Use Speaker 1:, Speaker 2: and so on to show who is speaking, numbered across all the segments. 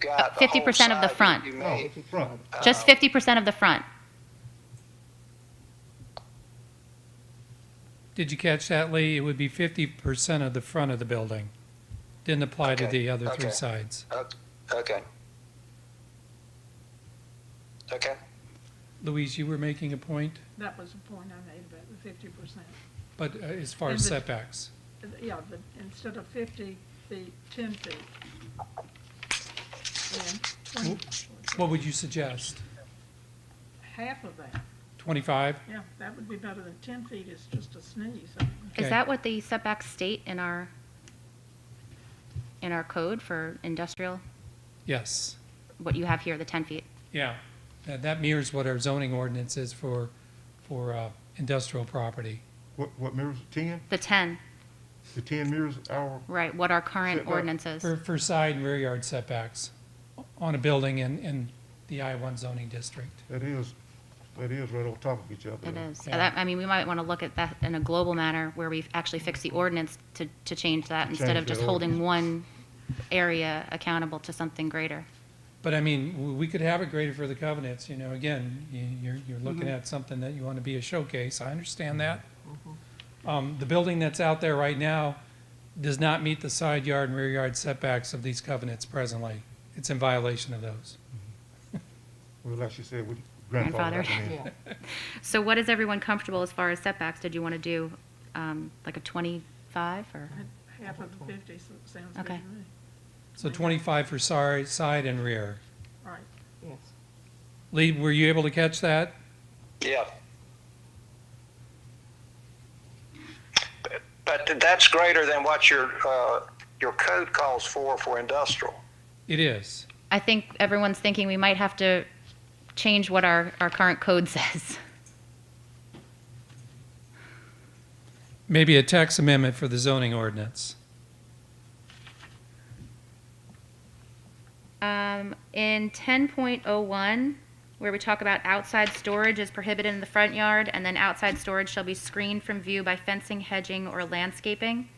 Speaker 1: got the
Speaker 2: 50%
Speaker 1: whole
Speaker 2: of the
Speaker 1: side
Speaker 2: front.
Speaker 1: that you
Speaker 3: Oh,
Speaker 1: made.
Speaker 3: it's in front.
Speaker 2: Just 50% of the front.
Speaker 4: Did you catch that, Lee? It would be fifty percent of the front of the building. Didn't apply to
Speaker 1: Okay,
Speaker 4: the other
Speaker 1: okay.
Speaker 4: three sides.
Speaker 1: Ok- Oh, Okay. Okay,
Speaker 4: Louise, you were making a point,
Speaker 5: That was the point I made about the fifty percent.
Speaker 4: but uh, as far as
Speaker 5: Is it-
Speaker 4: setbacks,
Speaker 5: Yeah, but instead of fifty feet, ten feet. And twenty,
Speaker 4: what would you suggest?
Speaker 5: half of that,
Speaker 4: Twenty-five?
Speaker 5: yeah, that would be better than ten feet is just a sneeze. I mean,
Speaker 4: Okay.
Speaker 2: Is that what the setbacks state in our, in our code for industrial,
Speaker 4: Yes,
Speaker 2: what you have here, the 10 feet?
Speaker 4: yeah. That, that mirrors what our zoning ordinance is for, for, uh, industrial property.
Speaker 3: What, what mirrors, ten?
Speaker 2: The 10,
Speaker 3: The ten mirrors our,
Speaker 2: right, what our current
Speaker 3: Setback.
Speaker 2: ordinance is.
Speaker 4: For, for side and rear yard setbacks on a building in, in the I one zoning district.
Speaker 3: that is, that is right on top of each other.
Speaker 2: It is.
Speaker 4: Yeah.
Speaker 2: That- I mean, we might want to look at that in a global manner where we actually fix the ordinance to, to change that instead of
Speaker 3: Change
Speaker 2: just
Speaker 3: the
Speaker 2: holding one area accountable to something greater.
Speaker 4: But I mean, w- we could have it graded for the covenants, you know, again, you- you're, you're looking at something that you want to be a showcase, I understand that. Um, the building that's out there right now does not meet the side yard and rear yard setbacks of these covenants presently. It's in violation of those.
Speaker 3: Well, like she said, with
Speaker 2: Grandfather.
Speaker 3: grandfather. Grandfather.
Speaker 2: So what is everyone comfortable as far as setbacks? Did you want to do um, like a 25 or?
Speaker 5: Half of the fifty so- sounds good to
Speaker 2: Okay.
Speaker 5: me.
Speaker 4: So twenty-five for side, side and rear.
Speaker 5: All right,
Speaker 6: Yes.
Speaker 4: Lee, were you able to catch that?
Speaker 1: yeah. But- But that's greater than what your, uh, your code calls for, for industrial.
Speaker 4: It is.
Speaker 2: I think everyone's thinking we might have to change what our, our current code says.
Speaker 4: Maybe a tax amendment for the zoning ordinance.
Speaker 2: Um, in ten point oh one, where we talk about outside storage is prohibited in the front yard, and then outside storage shall be screened from view by fencing, hedging, or landscaping.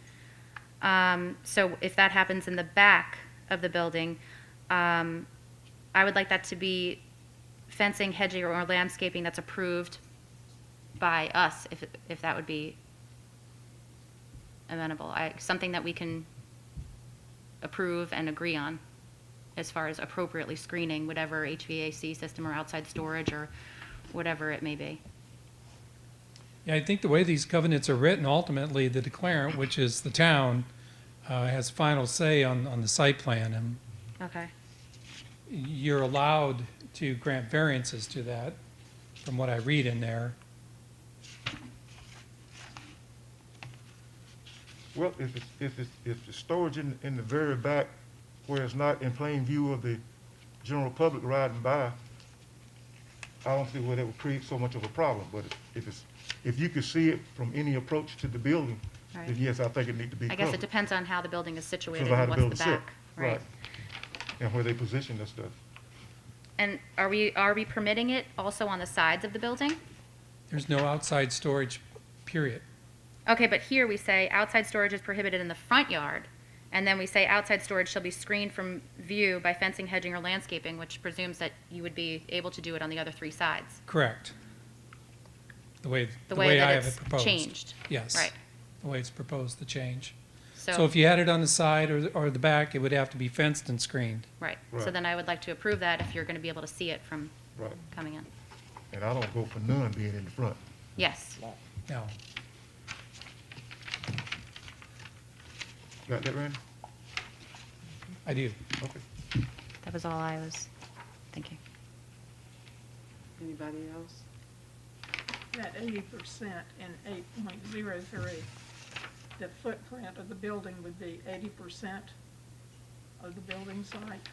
Speaker 2: Um, so if that happens in the back of the building, um, I would like that to be fencing, hedging, or landscaping that's approved by us, if, if that would be amenable, I, something that we can approve and agree on as far as appropriately screening whatever HVAC system or outside storage or whatever it may be.
Speaker 4: Yeah, I think the way these covenants are written, ultimately, the declarant, which is the town, uh, has final say on, on the site plan, and
Speaker 2: Okay.
Speaker 4: you're allowed to grant variances to that, from what I read in there.
Speaker 3: Well, if it's, if it's, if the storage in, in the very back where it's not in plain view of the general public riding by, I don't see where that would create so much of a problem, but if it's, if you could see it from any approach to the building, then
Speaker 2: Right.
Speaker 3: yes, I think it need to be
Speaker 2: I
Speaker 3: covered.
Speaker 2: guess it depends on how the building is situated
Speaker 3: Depends on how
Speaker 2: and
Speaker 3: the
Speaker 2: what's the
Speaker 3: building's set.
Speaker 2: back, right?
Speaker 3: And where they position the stuff.
Speaker 2: And are we, are we permitting it also on the sides of the building?
Speaker 4: There's no outside storage, period.
Speaker 2: Okay, but here we say outside storage is prohibited in the front yard, and then we say outside storage shall be screened from view by fencing, hedging, or landscaping, which presumes that you would be able to do it on the other three sides,
Speaker 4: Correct. The way,
Speaker 2: the
Speaker 4: the
Speaker 2: way
Speaker 4: way I
Speaker 2: that
Speaker 4: have it
Speaker 2: it's
Speaker 4: proposed.
Speaker 2: changed.
Speaker 4: Yes.
Speaker 2: Right.
Speaker 4: The way it's proposed, the change. So
Speaker 2: So,
Speaker 4: if you had it on the side or, or the back, it would have to be fenced and screened.
Speaker 2: right, so
Speaker 3: Right.
Speaker 2: then I would like to approve that if you're going to be able to see it from
Speaker 3: Right.
Speaker 2: coming in.
Speaker 3: And I don't go for none being in the front.
Speaker 2: Yes.
Speaker 4: Now,
Speaker 3: Got that, Randy?
Speaker 4: I do.
Speaker 3: Okay.
Speaker 2: That was all I was thinking.
Speaker 6: Anybody else?
Speaker 5: that eighty percent and eight point zero three, the footprint of the building would be eighty percent of the building site.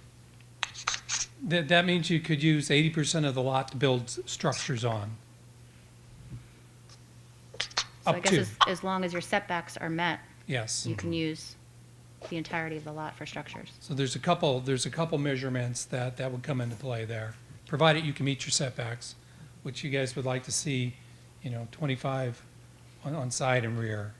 Speaker 4: That, that means you could use eighty percent of the lot to build s- structures on.
Speaker 2: So I
Speaker 4: Up
Speaker 2: guess
Speaker 4: to,
Speaker 2: as, as long as your setbacks are met,
Speaker 4: yes.
Speaker 2: you can use the entirety of the lot for structures.
Speaker 4: So there's a couple, there's a couple measurements that, that would come into play there, provided you can meet your setbacks, which you guys would like to see, you know, twenty-five on, on side and rear.